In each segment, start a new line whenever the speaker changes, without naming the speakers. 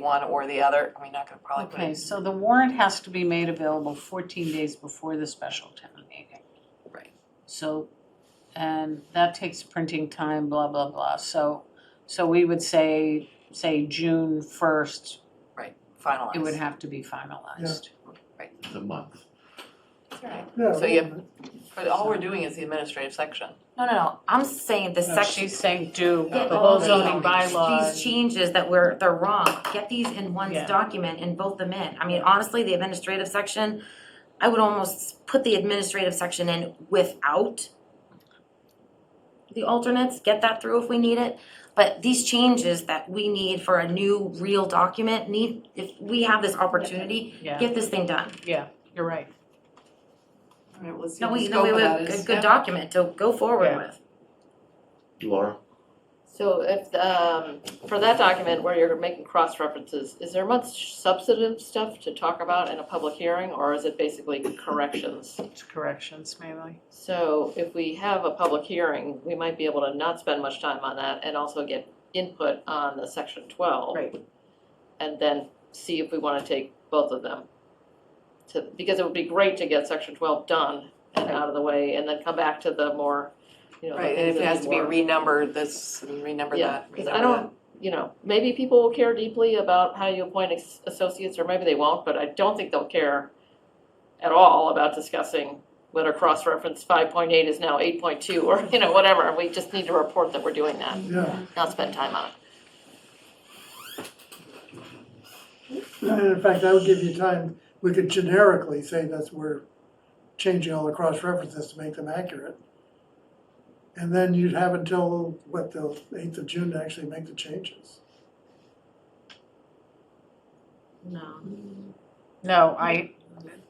one or the other, I mean, not gonna probably put
Okay,
it.
so the warrant has to be made available 14 days before the special town meeting.
Right.
So, and that takes printing time, blah, blah, blah. So, so we would say, say June 1st,
finalized.
it would have to be finalized.
the month.
That's right.
Yeah,
So you have, but all we're doing is the administrative section.
No, no, no, I'm saying the
No,
section,
She's saying do
Get
the whole
all the-
zoning bylaw.
these changes that were, they're wrong, get these in one
Yeah.
document and vote them in. I mean, honestly, the administrative section, I would almost put the administrative section in without the alternates, get that through if we need it. But these changes that we need for a new real document need, if we have this opportunity,
Yeah,
get this thing done.
you're right.
All right, let's see
No,
what the
we, no, we
scope of that
have a
is.
good
Yeah.
document to go forward
Yeah.
with.
Laura?
So if, um, for that document where you're making cross references, is there much substantive stuff to talk about in a public hearing or is it basically corrections?
It's Corrections, maybe.
So if we have a public hearing, we might be able to not spend much time on that and also get input on the section twelve.
Right.
And then see if we wanna take both of them. To, because it would be great to get section twelve done and out of the way and then come back to the more, you know, the
Right, and
things
if it
that
has
need
to be
work.
renumbered, this, and renumber
Yeah,
that,
because I
renumber
don't, you know, maybe people will care deeply about how you appoint as- associates, or maybe they won't, but I don't think they'll care at all about discussing whether cross-reference five point eight is now eight point two, or, you know, whatever, we just need to report that we're doing that,
Yeah,
not spend time on it.
and in fact, that would give you time, we could generically say that's we're changing all the cross references to make them accurate. And then you'd have until, what, the eighth of June to actually make the changes.
No.
No, I,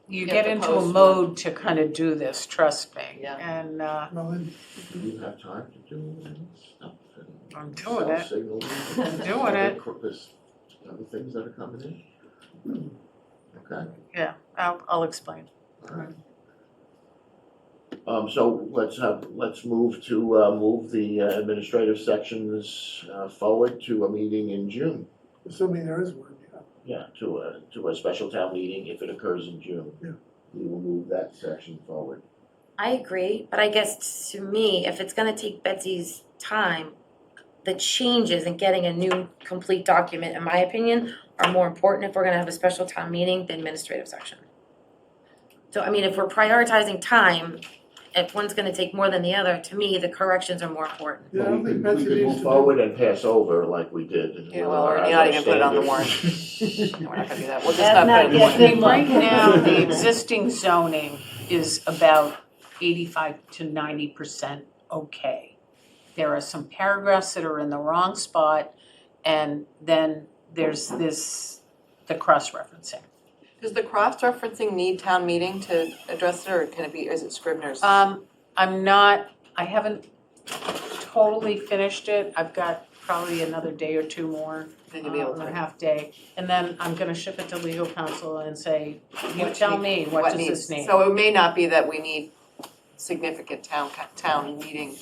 you
You have
get
to
into a
post one.
mode to kind of do this, trust me.
Yeah.
And, uh,
Well, then,
Do you have time to do all this stuff and?
I'm doing it.
Signal.
I'm doing it.
There's other things that are coming in. Okay,
I'll, I'll explain.
all right. Um, so let's have, let's move to, uh, move the uh, administrative sections, uh, forward to a meeting in June.
assuming there is one, yeah.
Yeah, to a, to a special town meeting if it occurs in June.
Yeah.
We will move that section forward.
I agree, but I guess to me, if it's gonna take Betsy's time, the changes and getting a new complete document, in my opinion, are more important if we're gonna have a special town meeting than administrative section. So I mean, if we're prioritizing time, if one's gonna take more than the other, to me, the corrections are more important.
Yeah, I don't think
Well,
Betsy
we could- We could
needs
move
to
forward
do.
and pass over like we did. and
Yeah,
with
well,
our
you're
other
not even put it on the
standards.
No, We're not gonna do that, we'll just not
That's not
put it
yet,
in one.
right now, the existing zoning is about eighty-five to ninety percent okay. There are some paragraphs that are in the wrong spot, and then there's this, the cross-referencing.
Does the cross-referencing need town meeting to address it, or can it be, is it Scribner's?
Um, I'm not, I haven't totally finished it, I've got probably another day or two more
Then you'll be able
um, a
to.
half day, and then I'm gonna ship it to legal counsel and say, you
What
tell
need-
me, what does
needs-
this mean?
So it may not be that we need significant town, co- town meeting.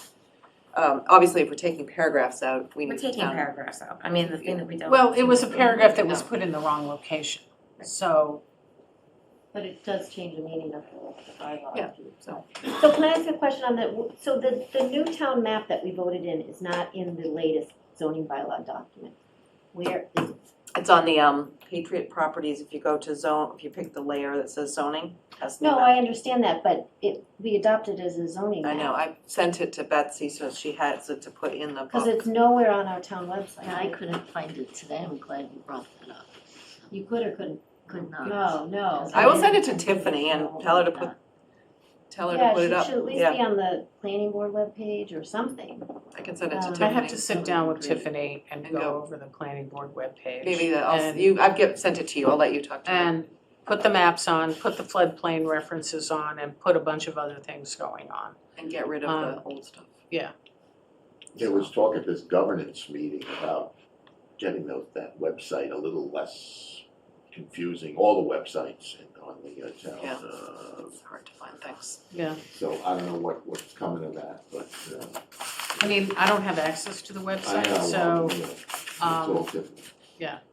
Um, obviously, if we're taking paragraphs out, we
We're
need
taking
town.
paragraphs out, I mean, the thing that we don't.
Well, it was a paragraph that was put in the wrong location, so,
But it does change the meaning of the bylaw.
Yeah, so.
So can I ask a question on that, so the, the new town map that we voted in is not in the latest zoning bylaw document? Where is it?
It's on the, um, Patriot Properties, if you go to zone, if you pick the layer that says zoning, has the
No,
map.
I understand that, but it, we adopted as a zoning
I
map.
know, I sent it to Betsy, so she has it to put in the book.
Cause it's nowhere on our town website.
I couldn't find it today, I'm glad you brought that up,
You could or couldn't,
could not.
no, no.
I will send it to Tiffany and tell her to put, tell her to put it
Yeah,
up,
she should at least
yeah,
be on the planning board webpage or something.
I can send it to
um,
Tiffany.
I have to sit down with Tiffany and
And
go
go.
over the planning board webpage.
Maybe that, I'll,
and-
you, I've get, sent it to you, I'll let you talk to her.
And put the maps on, put the floodplain references on, and put a bunch of other things going on.
And get rid of
um,
the old stuff.
There was talk at this governance meeting about getting those, that website a little less confusing, all the websites and on the uh, town.
Yeah.
uh,
It's hard to find things.
Yeah.
So I don't know what, what's coming of that, but uh,
I mean, I don't have access to the
I
website,
don't
so,
know. you know, It's
um,
all different.